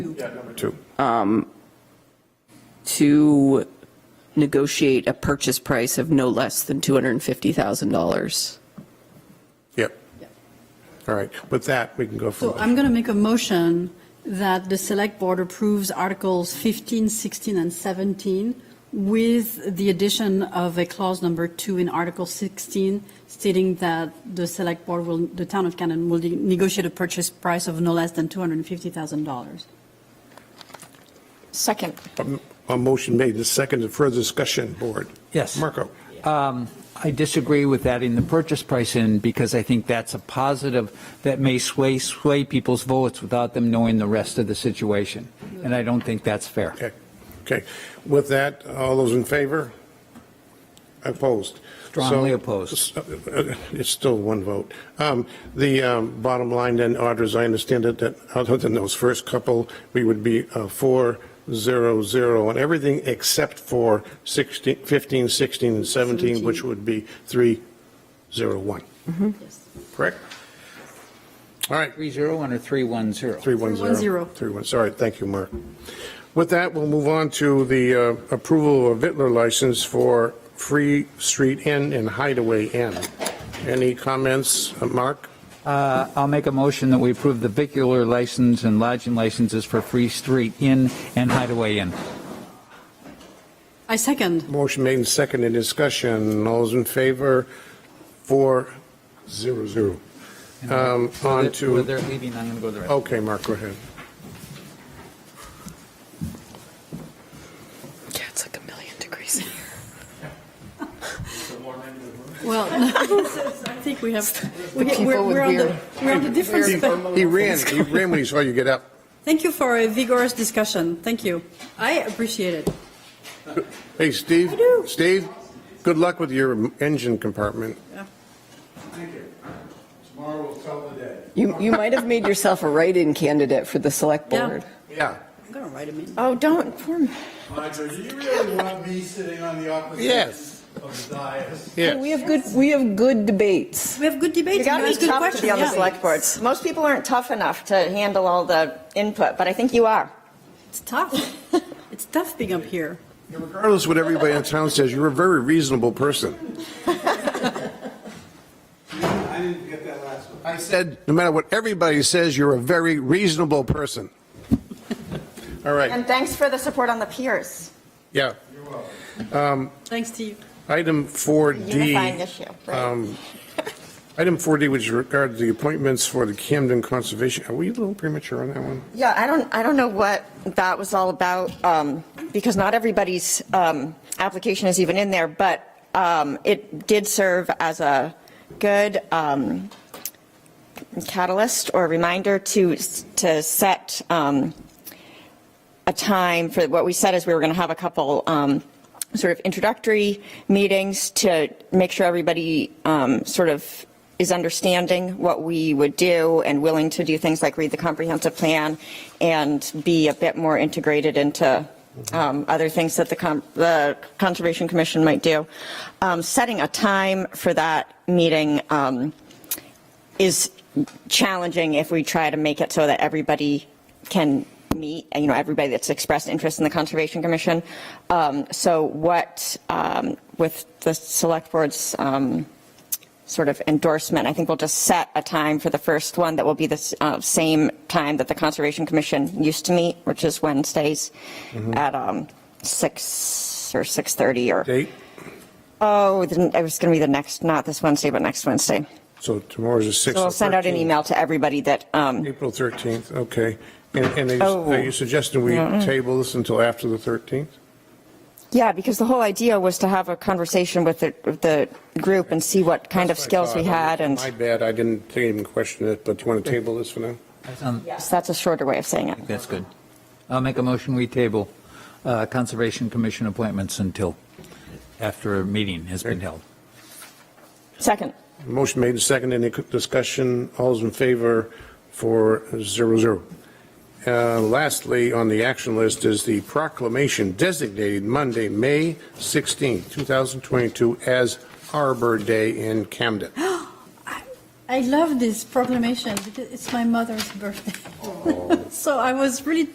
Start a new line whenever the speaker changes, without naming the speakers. Yeah, number two.
Two.
to negotiate a purchase price of no less than $250,000.
Yep. All right. With that, we can go
So
for,
I'm going to make a motion that the select board approves Articles 15, 16, and 17 with the addition of a clause number two in Article 16 stating that the select board will, the town of Cannon will negotiate a purchase price of no less than $250,000.
Second.
a motion made and seconded. Further discussion, board?
Yes.
Marco?
Um, I disagree with adding the purchase price in because I think that's a positive that may sway, sway people's votes without them knowing the rest of the situation. And I don't think that's fair.
Okay. Okay. With that, all those in favor? Opposed?
Strongly
So- uh,
opposed.
It's still one vote. Um, The um, bottom line then, Audra, as I understand it, that other than those first couple, we would be uh, four, zero, zero on everything except for 16, 15, 16, and 17, which would be three, zero, one.
Yes.
Correct? All right.
3-0 or 3-1-0?
310.
310.
310, sorry, thank you, Mark. With that, we'll move on to the uh, approval of a Vittler license for Free Street Inn and Hideaway Inn. Any comments, uh, Mark?
Uh, I'll make a motion that we approve the vicular license and lodging licenses for Free Street Inn and Hideaway Inn.
I second.
Motion made and seconded, discussion, all those in favor, four, zero, zero. Um, On
Where
to, Oh.
they're leaving, I'm going to go to the restroom.
okay, Mark, go ahead.
Yeah, it's like a million degrees in here.
Well, I think we have, we- we're
People would
we're on the,
wear-
we're on the different. spe-
He ran, he ran when he saw you get up.
Thank you for a vigorous discussion. Thank you. I appreciate it.
Hey, Steve?
I do.
Steve, good luck with your engine compartment.
Tomorrow will tell the day.
You, you might have made yourself a write-in candidate for the select
Yeah.
board.
Yeah.
I'm going to write a minute.
Oh, don't, poor-
Roger, do you really want me sitting on the opposite?
Yes.
Of the dais?
Yeah.
We have good, we have good debates.
We have good debates.
you gotta
and
be
you ask good
tough to be on the
questions, yeah.
select board. Most people aren't tough enough to handle all the input, but I think you are.
It's tough. It's tough being up here.
Regardless of what everybody in town says, you're a very reasonable person.
I didn't get that last one.
I said, no matter what everybody says, you're a very reasonable person. All right,
And thanks for the support on the peers.
yeah.
Thanks, Steve.
Item
Unifying
4D,
issue. right?
item 4D, which regards the appointments for the Camden Conservation, are we a little premature on that one?
Yeah, I don't, I don't know what that was all about, um, because not everybody's um, application is even in there, but um, it did serve as a good um, catalyst or reminder to, to set um, a time for, what we said is we were going to have a couple um, sort of introductory meetings to make sure everybody um, sort of is understanding what we would do and willing to do things like read the comprehensive plan and be a bit more integrated into um, other things that the com- the Conservation Commission might do. Um, Setting a time for that meeting um, is challenging if we try to make it so that everybody can meet, you know, everybody that's expressed interest in the Conservation Commission. Um, So what, um, with the Select Board's um, sort of endorsement, I think we'll just set a time for the first one that will be the s- uh, same time that the Conservation Commission used to meet, which is Wednesdays at um, 6 or 6:30 or,
Date?
oh, the- it was going to be the next, not this Wednesday, but next Wednesday.
So tomorrow's the 6th.
So I'll send out an email to everybody that, um,
April 13th, okay. And and are you-
Oh.
are you suggesting we
Yeah.
table this until after the 13th?
yeah, because the whole idea was to have a conversation with the, with the group and see what kind of
That's what I
skills we
thought.
had, and
My bad, I didn't even question it, but do you want to table this for now?
That's on-
Yes, that's a shorter way of saying it.
That's good. I'll make a motion, we table uh, Conservation Commission appointments until after a meeting has been held.
Second,
Motion made and seconded. Any discussion? All those in favor for zero zero. Uh, Lastly, on the action list is the proclamation designated Monday, May 16, 2022 as Arbor Day in Camden.
Oh. I love this proclamation because it's my mother's birthday. so I was really